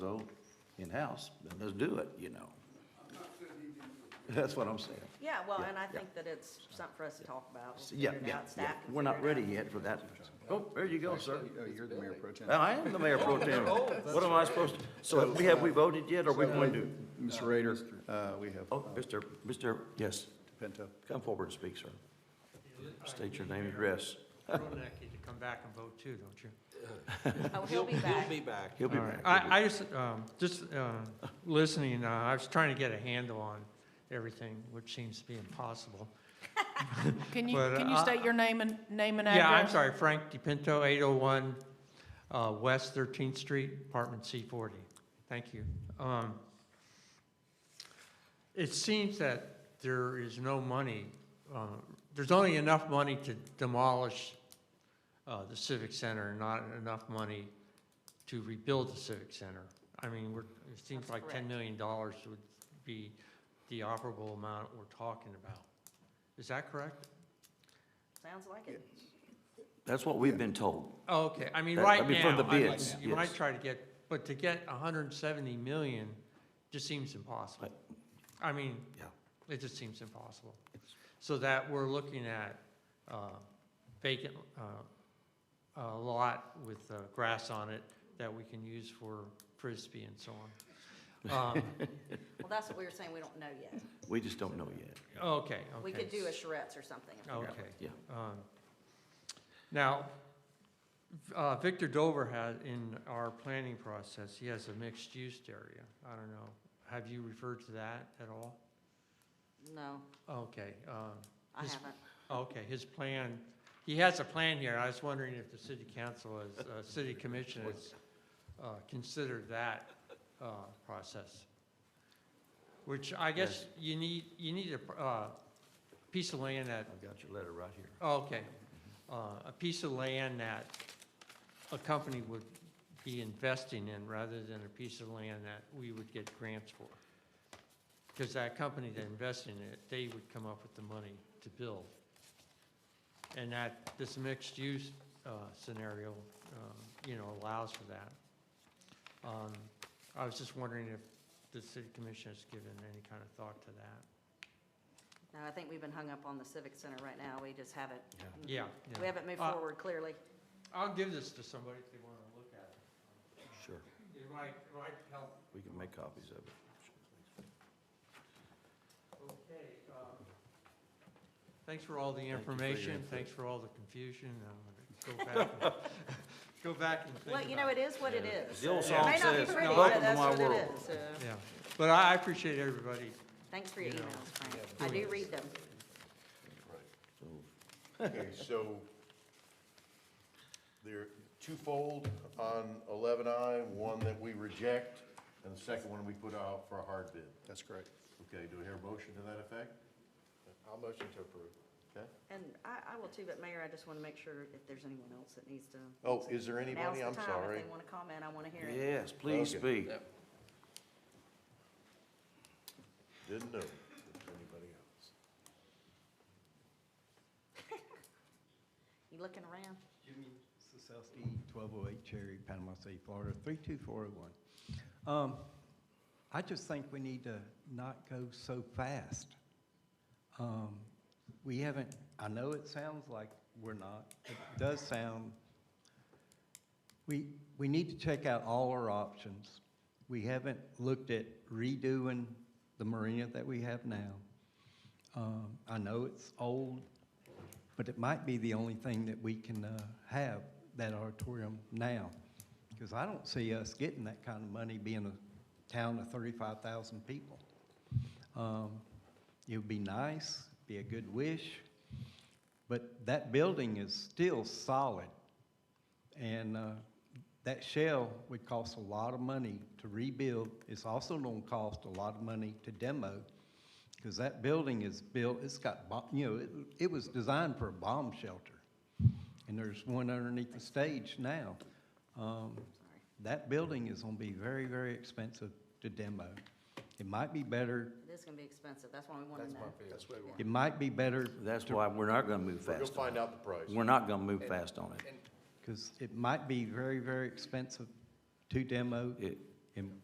So, in-house, then let's do it, you know. That's what I'm saying. Yeah, well, Yeah, and I yeah. think that it's something for us to talk about. We'll Yeah, figure it yeah, out. yeah. Staff can We're not figure it ready out. yet for that. Oh, there you go, sir. Oh, Oh, you're the mayor pro tem. Well, I am the mayor pro tem. What am I supposed to, so we have, we voted yet, or we going to? Mr. Rader, uh, we have Oh, Mr. Mr., yes, Pinto. come forward and speak, sir. State your name and address. Ronak, you come back and vote too, don't you? Oh, he'll be back. He'll be back. He'll be All right. back. I, I just, um, just, uh, listening, uh, I was trying to get a handle on everything, which seems to be impossible. Can you, But, can you uh, state your name and, name and address? Yeah, I'm sorry, Frank DePinto, eight oh one, uh, West Thirteenth Street, apartment C forty. Thank you. Um, it seems that there is no money, uh, there's only enough money to demolish, uh, the civic center, and not enough money to rebuild the civic center. I mean, we're, it seems That's like correct. ten million dollars would be the operable amount we're talking about. Is that correct? Sounds like it. That's what we've been told. Oh, Okay, I mean, That- I right mean, from now, the I bids, might, you might yes. try to get, but to get hundred and seventy million just seems impossible. I mean, Yeah. it just seems impossible. So that we're looking at, uh, vacant, uh, a lot with, uh, grass on it that we can use for frisbee and so on. Um, Well, that's what we were saying, we don't know yet. We just don't know yet. okay, okay. We could do a charrettes or something. if we Oh, Okay. Yeah. Um, Now, uh, Victor Dover had, in our planning process, he has a mixed-use area. I don't know, have you referred to that at all? No, Okay, um, I His- haven't. okay, his plan, he has a plan here. I was wondering if the city council, is- uh, city commission has uh, considered that uh, process. Which I guess you need, you need a pr- uh, piece of land that I've got your letter right here. Okay, uh, a piece of land that a company would be investing in rather than a piece of land that we would get grants for. Because that company that invested in it, they would come up with the money to build. And that, this mixed-use uh, scenario, um, you know, allows for that. Um, I was just wondering if the city commission has given any kind of thought to that. No, I think we've been hung up on the civic center right now. We just haven't. Yeah. Mm-hmm. We haven't moved Uh, forward clearly. I'll give this to somebody if they want to look at it. Sure, It might, might help. we can make copies of it. Okay, um, thanks for all the information, thanks for all the confusion, I'm gonna go back, and- go back and think Well, you know, about it is what it is. The old It song may not be says, pretty, but welcome to that's my what it world. is. so. Yeah, but I I appreciate everybody. Thanks for your You know, emails, Frank. I do read them. Okay, so they're twofold on eleven I, one that we reject, and the second one we put out for a hard bid. That's correct. Okay, do we hear a motion to that effect? I'll motion to approve. Okay. And I, I will too, but Mayor, I just want to make sure if there's anyone else that needs to. Oh, is there Now's anybody? the I'm time. sorry. If they want to comment, I want to hear it. Yes, please Okay. speak. Didn't know if there's anybody else. You looking around? Jimmy Sosowski, 1208 Cherry, Panama City, Florida, 32401. Um, I just think we need to not go so fast. Um, We haven't, I know it sounds like we're not, it does sound, we, we need to check out all our options. We haven't looked at redoing the marina that we have now. Um, I know it's old, but it might be the only thing that we can uh, have, that auditorium now. Because I don't see us getting that kind of money being a town of 35,000 people. Um, It would be nice, be a good wish, but that building is still solid. And uh, that shell would cost a lot of money to rebuild. It's also going to cost a lot of money to demo, because that building is built, it's got, bo- you know, it, it was designed for a bomb shelter. And there's one underneath the stage now. Um, Sorry. That building is going to be very, very expensive to demo. It might be better, It is going to be expensive. That's why we want to know. That's what we want. it might be better That's why we're not gonna move We'll fast. on find out the price. it. We're not gonna move fast on it. because it might be very, very expensive to demo. It, And